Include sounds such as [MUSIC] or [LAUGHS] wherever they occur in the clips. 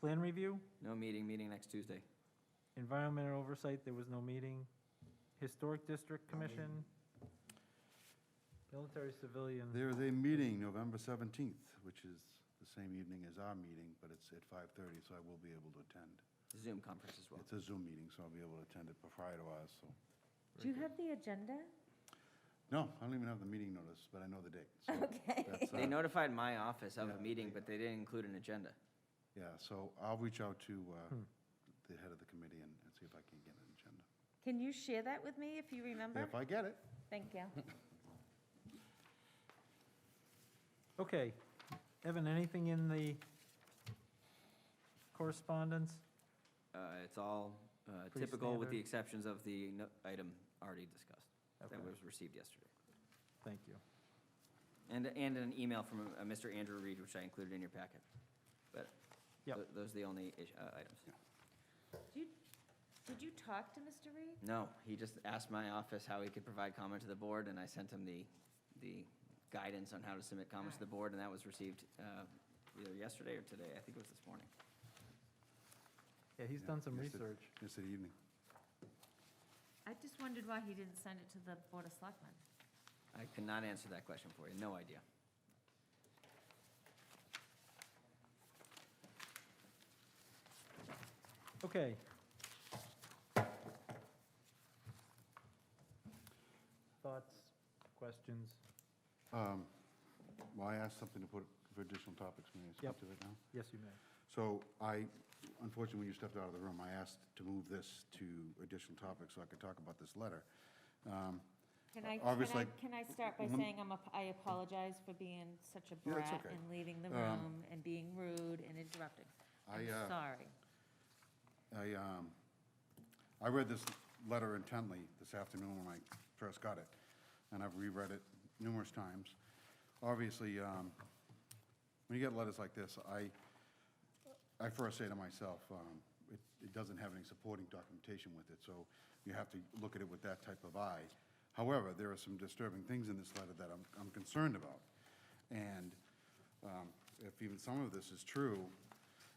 Plan review, No meeting, meeting next Tuesday. environmental oversight, there was no meeting. Historic District Commission, military civilian. There is a meeting November 17th, which is the same evening as our meeting, but it's at 5:30, so I will be able to attend. Zoom conference as well. It's a Zoom meeting, so I'll be able to attend it prior to ours, so. Do you have the agenda? No, I don't even have the meeting notice, but I know the date. [LAUGHS] so [LAUGHS] Okay. that's, They uh, notified my office of a Yeah, meeting, they- but they didn't include an agenda. uh, Yeah, so I'll reach out to uh, Hmm. the head of the committee and and see if I can get an agenda. Can you share that with me if you remember? If I get it. Thank [LAUGHS] you. Okay. Evan, anything in the correspondence? Uh, It's all uh, Pretty typical, with the standard. exceptions of the no- item already discussed Okay, that was received yesterday. Thank you. And, and an email from uh, Mr. Andrew Reed, which I included in your packet. But Yep. tho- those are the only is- uh, items. Did you- Did you talk to Mr. Reed? No, he just asked my office how he could provide comment to the board, and I sent him the, the guidance on how to submit comments to the board, and that was received uh, either yesterday or today. I think it was this morning. Yeah, he's Yeah, done some yes, it- research. Yesterday evening. I just wondered why he didn't send it to the Board of Selectmen. I cannot answer that question for you, no idea. Okay. Thoughts, questions? Um, Well, I asked something to put for additional topics, may I Yep. speak to it now? Yes, you may. So I, unfortunately, when you stepped out of the room, I asked to move this to additional topics so I could talk about this letter. Um, Can I, can I, Obviously- can I start by Lem- saying I'm, ap- I apologize for being such a Yeah, that's brat okay. and leaving the Um, room and being rude and interrupting? I'm I, uh, sorry. I, um, I read this letter intently this afternoon when I first got it, and I've reread it numerous times. Obviously, um, when you get letters like this, I, I first say to myself, um, it, it doesn't have any supporting documentation with it, so you have to look at it with that type of eye. However, there are some disturbing things in this letter that I'm, I'm concerned about. And um, if even some of this is true,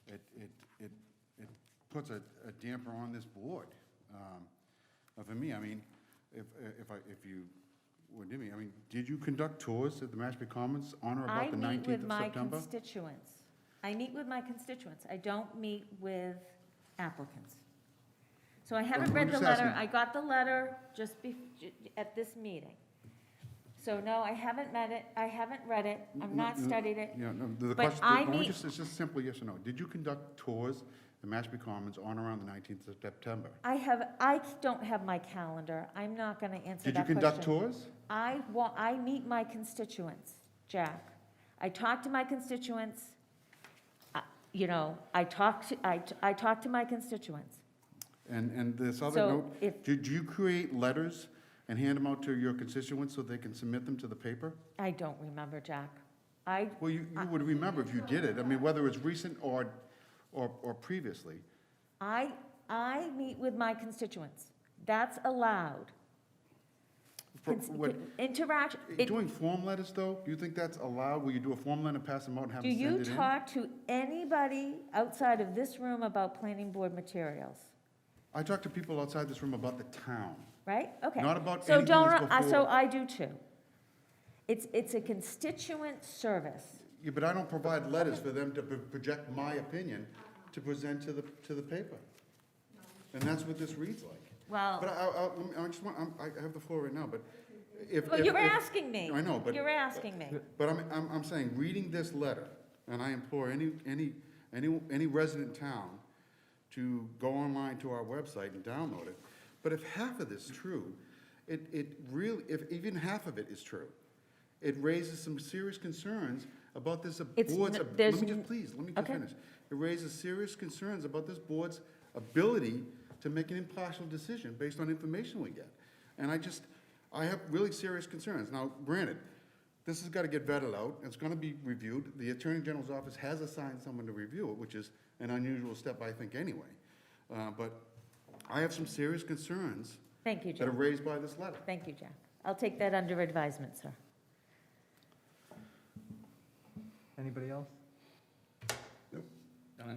it, it, it, it puts a a damper on this board. Um, uh, For me, I mean, if, if I, if you, what do you mean? I mean, did you conduct tours at the Mashpee Commons on or I about the meet 19th with of my September? constituents. I meet with my constituents. I don't meet with applicants. So I haven't I'm read the just letter. asking. I got the letter just be, at this meeting. So no, I haven't met it. I haven't read it. I've not No, no, studied it. Yeah, no, the- the But question, I the- only meet- just, it's just simple yes or no. Did you conduct tours at Mashpee Commons on or around the 19th of September? I have, I don't have my calendar. I'm not going to answer Did you that question. conduct tours? I wa, I meet my constituents, Jack. I talk to my constituents. I- You know, I talk to, I, I talk to my constituents. And, and this other So note, if- did you create letters and hand them out to your constituents so they can submit them to the paper? I don't remember, Jack. I, Well, you, you would remember if you did it. I mean, whether it's recent or, or, or previously. I, I meet with my constituents. That's allowed. For Cons- what- eh, Interact, it- Doing form letters, though, do you think that's allowed? Will you do a form letter, pass them out, and have do them send it in? you talk to anybody outside of this room about planning board materials? I talk to people outside this room about the town. Right? Okay. Not about So anything don't, that's I- So before- I do too. It's, it's a constituent service. Yeah, but I don't provide letters for them to pro- project my opinion to present to the, to the paper. And that's what this reads like. Well- But I, I, let me- I just want, I'm- I have the floor right now, but if. Well, if- you were if- asking me. I know, but. You were asking me. But I'm, I'm, I'm saying, reading this letter, and I implore any, any, any, any resident town to go online to our website and download it. But if half of this is true, it, it really, if even half of it is true, it raises some serious concerns about this It's board's, n- ab- there's let me n- just, please, let me just Okay. finish. It raises serious concerns about this board's ability to make an impartial decision based on information we get. And I just, I have really serious concerns. Now, granted, this has got to get vetted out, it's going to be reviewed. The Attorney General's office has assigned someone to review it, which is an unusual step, I think, anyway. Uh, But I have some serious concerns Thank you, that are Jack. raised by this letter. Thank you, Jack. I'll take that under advisement, sir. Anybody else?